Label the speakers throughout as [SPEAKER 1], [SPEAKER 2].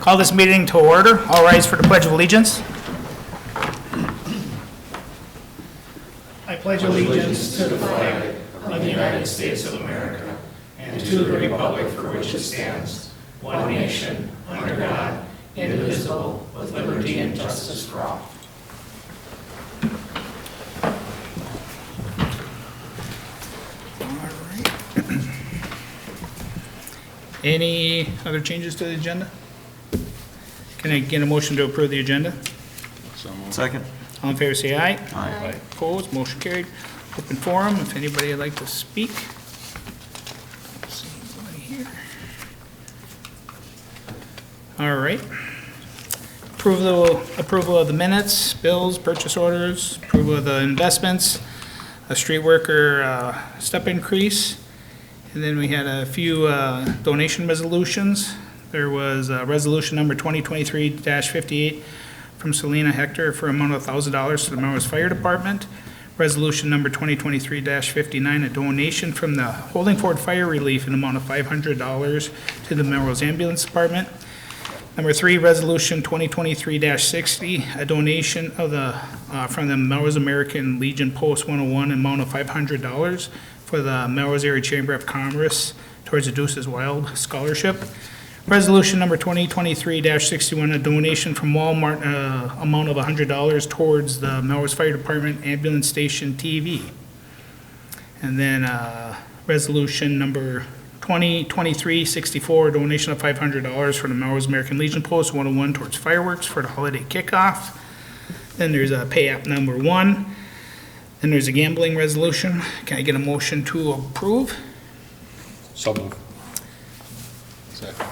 [SPEAKER 1] Call this meeting to order. All rise for the Pledge of Allegiance. I pledge allegiance to the Any other changes to the agenda? Can I get a motion to approve the agenda?
[SPEAKER 2] Second.
[SPEAKER 1] All in favor, say aye.
[SPEAKER 2] Aye.
[SPEAKER 1] Opposed, motion carried. Open forum, if anybody would like to speak. See anybody here. All right. Approval, approval of the minutes, bills, purchase orders, approval of the investments, a street worker uh, step increase, and then we had a few uh, donation resolutions. There was uh, resolution number 2023-58 from Selena Hector for amount of $1,000 to the Melrose Fire Department. Resolution number 2023-59, a donation from the Holding Ford Fire Relief in amount of $500 to the Melrose Ambulance Department. Number three, Resolution 2023-60, a donation of the, uh, from the Melrose American Legion Post 101, amount of $500 for the Melrose Area Chamber of Commerce towards the Deuces Wild Scholarship. Resolution number 2023-61, a donation from Walmart, uh, amount of $100 towards the Melrose Fire Department Ambulance Station TV. And then uh, resolution number 2023-64, donation of $500 for the Melrose American Legion Post 101 towards fireworks for the holiday kickoff. Then there's a pay app number one. Then there's a gambling resolution. Can I get a motion to approve?
[SPEAKER 3] So moved. Second.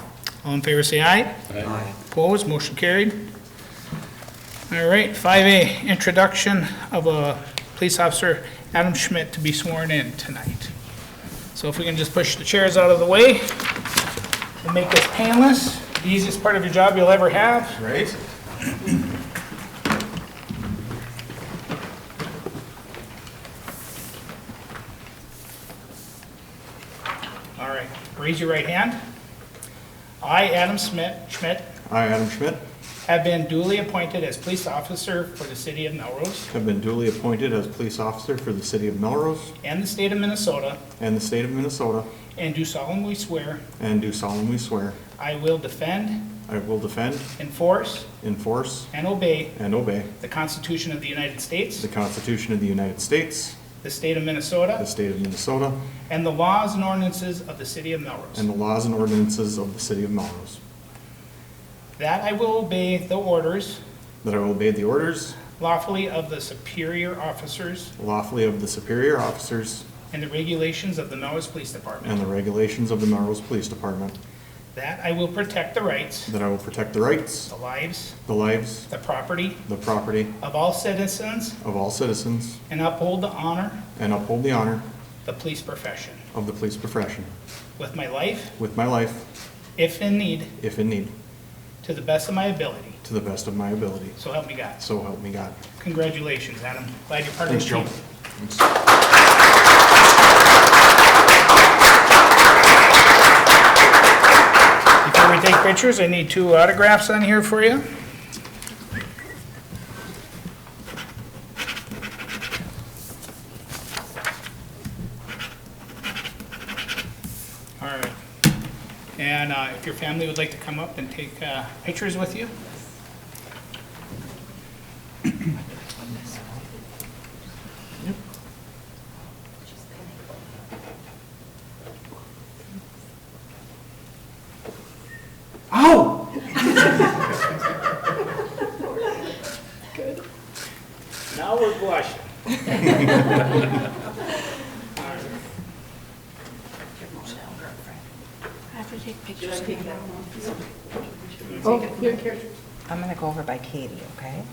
[SPEAKER 1] All in favor, say aye.
[SPEAKER 2] Aye.
[SPEAKER 1] Opposed, motion carried. All right, 5A, introduction of a police officer, Adam Schmidt, to be sworn in tonight. So if we can just push the chairs out of the way and make this painless, the easiest part of your job you'll ever have.
[SPEAKER 2] Right?
[SPEAKER 1] All right, raise your right hand. I, Adam Schmidt, Schmidt,
[SPEAKER 4] I, Adam Schmidt,
[SPEAKER 1] have been duly appointed as police officer for the city of Melrose
[SPEAKER 4] have been duly appointed as police officer for the city of Melrose
[SPEAKER 1] and the state of Minnesota,
[SPEAKER 4] and the state of Minnesota,
[SPEAKER 1] and do solemnly swear
[SPEAKER 4] and do solemnly swear
[SPEAKER 1] I will defend,
[SPEAKER 4] I will defend,
[SPEAKER 1] enforce,
[SPEAKER 4] enforce,
[SPEAKER 1] and obey
[SPEAKER 4] and obey
[SPEAKER 1] The Constitution of the United States,
[SPEAKER 4] the Constitution of the United States,
[SPEAKER 1] the state of
[SPEAKER 4] the
[SPEAKER 1] Minnesota,
[SPEAKER 4] state of Minnesota,
[SPEAKER 1] and the laws and ordinances of the city of
[SPEAKER 4] and
[SPEAKER 1] Melrose.
[SPEAKER 4] the laws and ordinances of the city of Melrose,
[SPEAKER 1] That I will obey the orders
[SPEAKER 4] that I will obey the orders
[SPEAKER 1] lawfully of the superior officers
[SPEAKER 4] lawfully of the superior officers
[SPEAKER 1] and the regulations of the Melrose Police Department.
[SPEAKER 4] and the regulations of the Melrose Police Department,
[SPEAKER 1] That I will protect the rights,
[SPEAKER 4] that I will protect the rights,
[SPEAKER 1] the lives,
[SPEAKER 4] the lives,
[SPEAKER 1] the property
[SPEAKER 4] the property
[SPEAKER 1] of all citizens
[SPEAKER 4] of all citizens,
[SPEAKER 1] and uphold the honor,
[SPEAKER 4] and uphold the honor
[SPEAKER 1] the police profession,
[SPEAKER 4] of the police profession
[SPEAKER 1] with my life,
[SPEAKER 4] with my life,
[SPEAKER 1] if in need,
[SPEAKER 4] if in need.
[SPEAKER 1] to the best of my ability.
[SPEAKER 4] To the best of my ability.
[SPEAKER 1] So help me God.
[SPEAKER 4] So help me God.
[SPEAKER 1] Congratulations, Adam. Glad you're part of the
[SPEAKER 4] Thanks, Joe.
[SPEAKER 1] team. Before we take pictures, I need two autographs on here for you. All right. And uh, if your family would like to come up and take uh, pictures with you? Ow! Now we're blushing.
[SPEAKER 5] I have to take pictures.
[SPEAKER 6] I'm gonna go over by Katie, okay?